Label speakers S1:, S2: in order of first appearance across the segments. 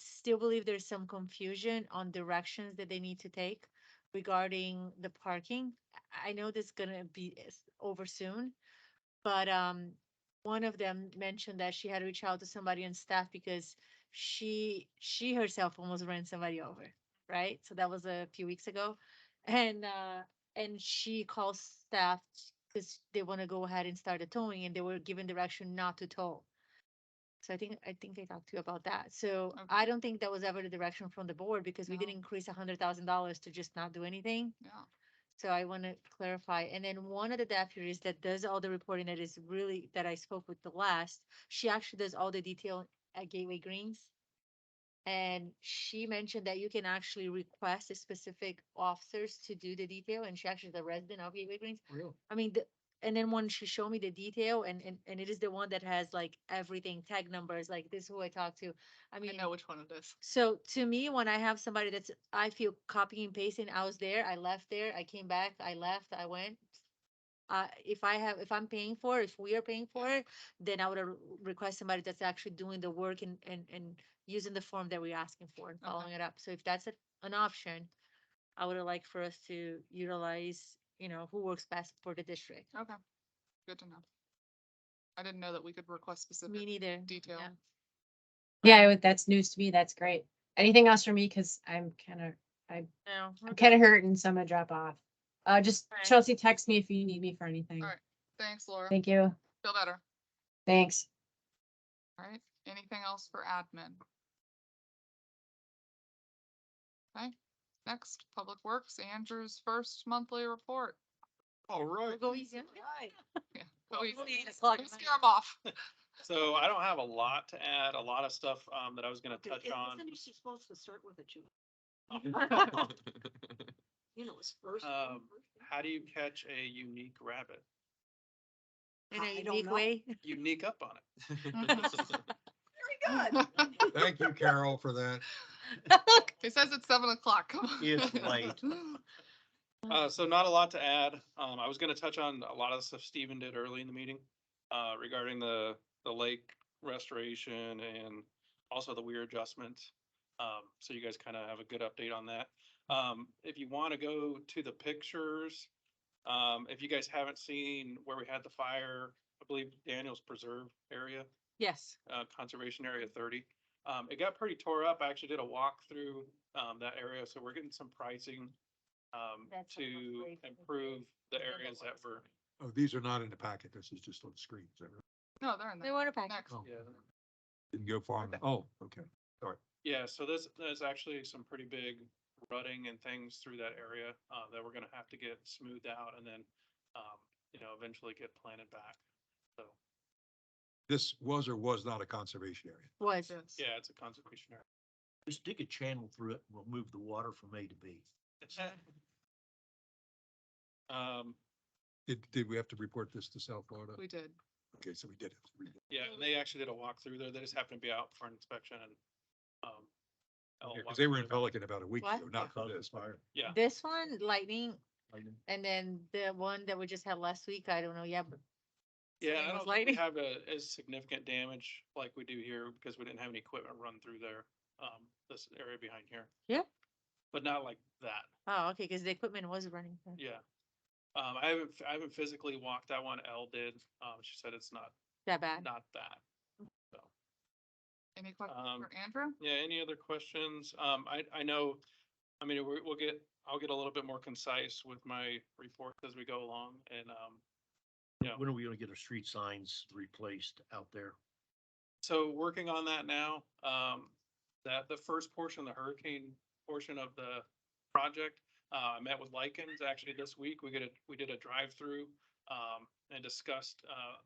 S1: still believe there's some confusion on directions that they need to take regarding the parking. I I know this gonna be is over soon, but um, one of them mentioned that she had to reach out to somebody on staff because she, she herself almost ran somebody over, right? So that was a few weeks ago. And uh, and she calls staff because they want to go ahead and start the towing and they were given direction not to tow. So I think, I think I talked to you about that. So
S2: Okay.
S1: I don't think that was ever the direction from the board because we
S2: No.
S1: didn't increase a hundred thousand dollars to just not do anything.
S2: Yeah.
S1: So I want to clarify. And then one of the deputies that does all the reporting that is really, that I spoke with the last, she actually does all the detail at Gateway Greens. And she mentioned that you can actually request a specific officers to do the detail and she actually is a resident of Gateway Greens.
S3: Real.
S1: I mean, the, and then when she showed me the detail and, and, and it is the one that has like everything, tag numbers, like this is who I talked to. I
S2: I
S1: mean,
S2: know which one it is.
S1: so to me, when I have somebody that's, I feel copying and pasting, I was there, I left there, I came back, I left, I went. Uh, if I have, if I'm paying for, it, if we are paying for it, then I would uh, request somebody that's actually doing the work and, and, and using the form that we're asking for and
S2: Okay.
S1: following it up. So if that's a- an option, I would like for us to utilize, you know, who works best for the district.
S2: Okay. Good to know. I didn't know that we could request
S1: Me
S2: specific
S1: neither.
S2: detail.
S1: yeah.
S4: Yeah, I would- that's news to me. That's great. Anything else for me? Cause I'm kind of,
S1: No. we're
S4: I'm
S1: good.
S4: kind of hurting, so I'm gonna drop off. Uh, just
S1: Alright.
S4: Chelsea, text me if you need me for anything.
S2: Alright. Thanks, Laura.
S4: Thank you.
S2: Feel better.
S4: Thanks.
S2: All right. Anything else for admin? Okay. Next, Public Works, Andrew's first monthly report.
S5: Oh,
S3: All
S1: We'll
S3: right.
S1: go easy.
S2: Yeah, go easy.
S1: We'll eat a slug
S2: Don't
S1: of
S2: Scare him off.
S3: So I don't have a lot to add, a lot of stuff um that I was gonna
S6: Dude,
S3: touch
S6: i-
S3: on.
S6: Isn't she supposed to start with a Jew?
S3: How
S6: You know, it's first.
S3: Um,
S6: first name.
S3: do you catch a unique rabbit?
S1: In a
S6: I don't
S1: unique
S6: know.
S1: way.
S3: Unique up on it.
S6: Very good.
S5: Thank you, Carol, for that.
S2: He says it's seven o'clock. Come on.
S3: It's late. Uh, so not a lot to add. Um, I was gonna touch on a lot of the stuff Steven did early in the meeting, uh, regarding the, the lake restoration and also the weir adjustment. Um, so you guys kind of have a good update on that. Um, if you want to go to the pictures, um, if you guys haven't seen where we had the fire, I believe Daniel's Preserve area
S1: Yes.
S3: uh, Conservation Area thirty. Um, it got pretty tore up. I actually did a walk through, um, that area, so we're getting some pricing, um,
S1: That's what was
S3: to
S1: great.
S3: improve
S1: Yeah,
S3: the
S1: that
S3: areas that
S1: was
S3: were.
S5: Oh, these are not in the packet. This is just on the screen. Is that right?
S2: No, they're in
S1: They
S2: there.
S1: want a package.
S2: Next.
S5: Oh,
S3: Yeah.
S5: Didn't go far. enough. Oh, okay.
S3: Yeah, so there's, there's actually some pretty big rutting and things through that area, uh, that we're gonna have to get smoothed out and then, um, you know, eventually get planted back. So,
S5: This was or was not a conservation area.
S1: Was.
S2: Yes.
S3: yeah, it's a conservation area.
S7: Just dig a channel through it, and we'll move the water from A to B.
S3: Um,
S5: Did, did we have to report this to South Florida?
S2: We did.
S5: Okay, so we did. have to report.
S3: yeah, and they actually did a walk through there. They just happened to be out for an inspection and, um. I'll
S5: Yeah,
S3: walk
S5: Cause they were
S3: through
S5: in
S3: it.
S5: Pelican about a week
S1: What?
S5: ago, not for
S7: Cause
S5: this.
S7: fire.
S3: Yeah.
S1: This one, lightning,
S7: Lightning.
S1: and then the one that we just had last week, I don't know yet, but
S3: Yeah,
S1: Same
S3: I
S1: with
S3: don't think we
S1: lighting.
S3: have a, as significant damage like we do here because we didn't have any equipment run through there, um, this area behind here.
S1: Yeah.
S3: But not like that,
S1: oh, okay, because the equipment was running. so-
S3: yeah. Um, I haven't, I haven't physically walked that one. Elle did. Um, she said it's not,
S1: That bad.
S3: not that. So.
S2: Any questions
S3: Um,
S2: for Andrew?
S3: Yeah, any other questions? Um, I, I know, I mean, we, we'll get, I'll get a little bit more concise with my reports as we go along and, um,
S7: When are we gonna get our street signs replaced out there?
S3: So working on that now, um, that the first portion, the hurricane portion of the project, uh, I met with Lycans actually this week. We get a, we did a drive-through, um, and discussed, uh,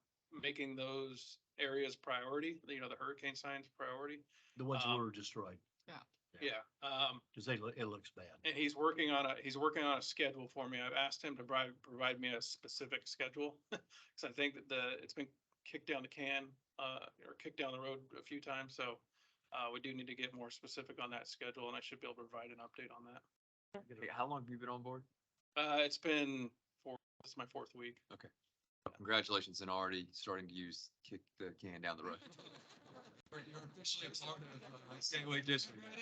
S3: making those areas priority, you know, the hurricane signs priority.
S7: The ones that
S3: Um,
S7: were destroyed,
S3: Yeah,
S7: Yeah.
S3: um,
S7: because they, loo- it looks bad.
S3: and he's working on a, he's working on a schedule for me. I've asked him to provide, provide me a specific schedule. Cause I think that the, it's been kicked down the can, uh, or kicked down the road a few times, so. Uh, we do need to get more specific on that schedule and I should be able to provide an update on that.
S8: How long have you been on board?
S3: Uh, it's been four, this is my fourth week.
S8: Congratulations on already starting to use kick the can down the road. You're officially a part of the gateway uh, district.